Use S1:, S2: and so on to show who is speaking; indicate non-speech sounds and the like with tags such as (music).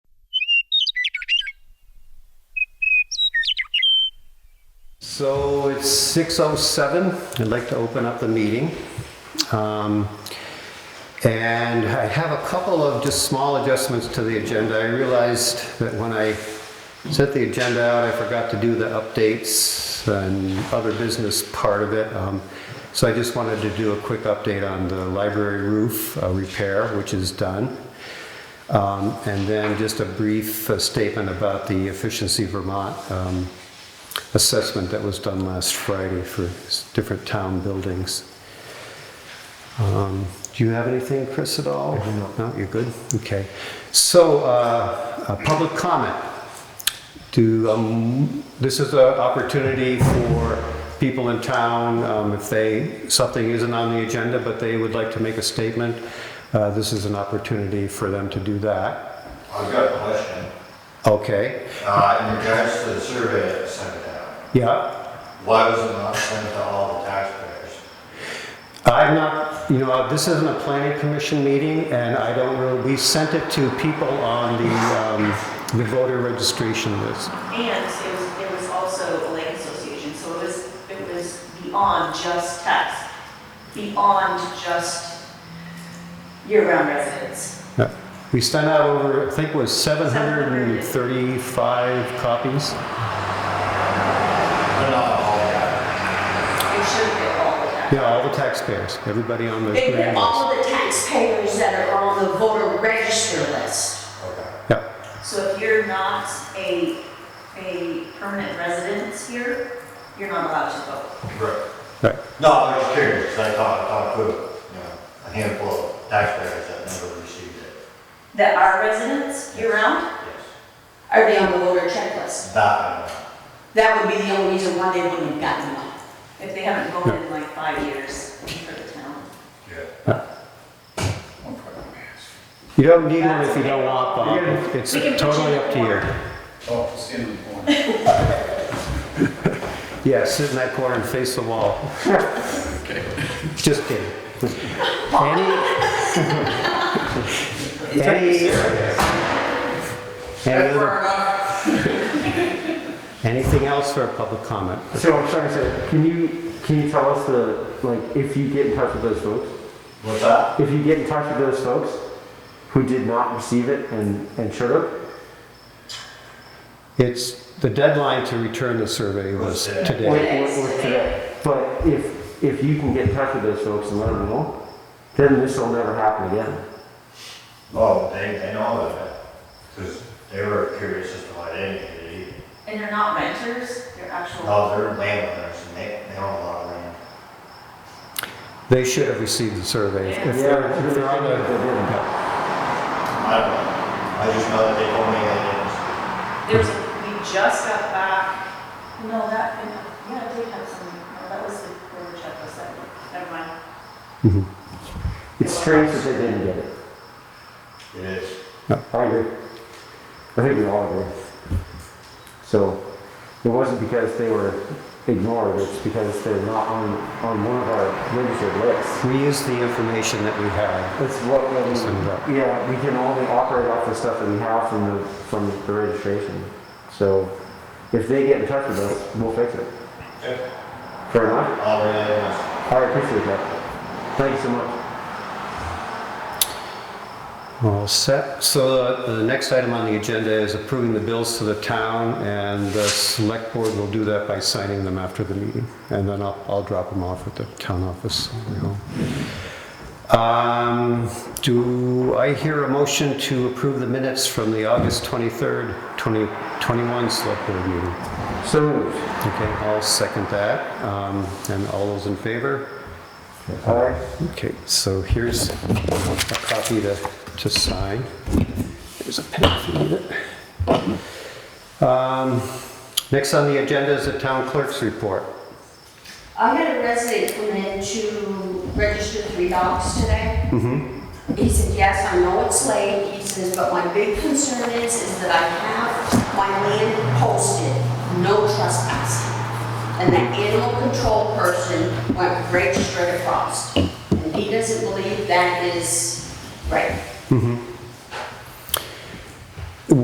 S1: So it's 6:07. I'd like to open up the meeting. Um, And I have a couple of just small adjustments to the agenda. I realized that when I sent the agenda out, I forgot to do the updates and other business part of it. Um, So I just wanted to do a quick update on the library roof uh, repair, which is done. Um, And then just a brief uh, statement about the Efficiency Vermont um, assessment that was done last Friday for s- different town buildings. Um, Do you have anything, Chris, at all? No, you're good? Okay. So, uh, uh, public comment. To, um, this is an opportunity for people in town, um, if they, something isn't on the agenda, but they would like to make a statement, uh, this is an opportunity for them to do that.
S2: I've got a question.
S1: Okay,
S2: Uh, in regards to the survey that was sent out,
S1: yeah.
S2: why was it not sent to all the taxpayers?
S1: I'm not, you know, this isn't a planning commission meeting, and I don't really, we sent it to people on the, um, the voter registration list.
S3: And it was, there was also a lake association, so it was, it was beyond just tax, beyond just year-round residents.
S1: Yeah. We sent out over, I think it was 735 copies.
S2: But not all the
S3: It should be all the tax.
S1: Yeah, all the taxpayers, everybody on the
S4: They put
S1: grand list.
S4: all the taxpayers that are on the voter register list.
S2: taxpayers.
S1: Yeah,
S3: So if you're not a, a permanent resident here, you're not allowed to vote.
S2: Okay. Right.
S1: right.
S2: No, I was curious, 'cause I talked, talked to, you know, a handful of taxpayers that never received it.
S3: That are residents year-round?
S2: Yes.
S4: Are they on the voter checklist?
S2: That, I know.
S4: That would be the only reason why they wouldn't have gotten one.
S3: If they haven't voted in like five years for the town.
S2: yeah.
S1: You don't need one if you don't want, Bob. It's
S3: We can put you
S1: totally
S3: in the
S1: up to you.
S3: corner.
S5: Oh, stand in the corner.
S1: Yeah, sit in that corner and face the (laughs) wall. Just kidding. (laughs) Any? Any? Any other- (laughs) Anything else for a public comment?
S6: So I'm sorry, sir. Can you can you tell us the like if you get in touch with those folks?
S2: What's that?
S6: If you get in touch with those folks who did not receive it and and should have,
S1: It's, the deadline to return the survey was
S2: Was today.
S6: or,
S1: today.
S6: or, or today. But if if you can get in touch with those folks and let them know, then this will never happen again.
S2: Oh, they, they know that, because they were curious as to why they didn't get it either.
S3: And they're not renters, they're actual.
S2: No, they're landowners, and they, they own a lot of land.
S1: They should have received the survey. If they're, if they're on
S6: They
S1: the,
S6: didn't.
S2: I don't know, I just know that they told me they didn't.
S3: There's, we just got back, no, that, yeah, I did have some, no, that was the border checklist, that, never mind.
S6: It's strange that they didn't get it.
S2: It is.
S6: I agree. I think we all agree. So it wasn't because they were ignored, it's because they're not on, on one of our registered lists.
S1: we used the information that we had.
S6: It's what, I mean,
S1: Send it up.
S6: yeah, we can only operate off the stuff that we have from the, from the registration. So if they get in touch with us, we'll fix it. Fair enough?
S2: All landowners.
S6: I appreciate that. Thank you so much.
S1: All set. So the the next item on the agenda is approving the bills to the town, and the select board will do that by signing them after the meeting. And then I'll, I'll drop them off at the town office. on the home. Um, Do I hear a motion to approve the minutes from the August 23rd, 2021 select board meeting?
S6: So moved.
S1: Okay, I'll second that. Um, And all those in favor?
S6: All right.
S1: Okay, so here's a copy to, to sign. There's a pen if you need it. Um, Next on the agenda is the town clerk's report.
S4: I had a resident come in to register three dogs today. He said, yes, I know it's late, he says, but my big concern is, is that I have my land posted, no trespassing. And that animal control person went right straight across. And he doesn't believe that is right.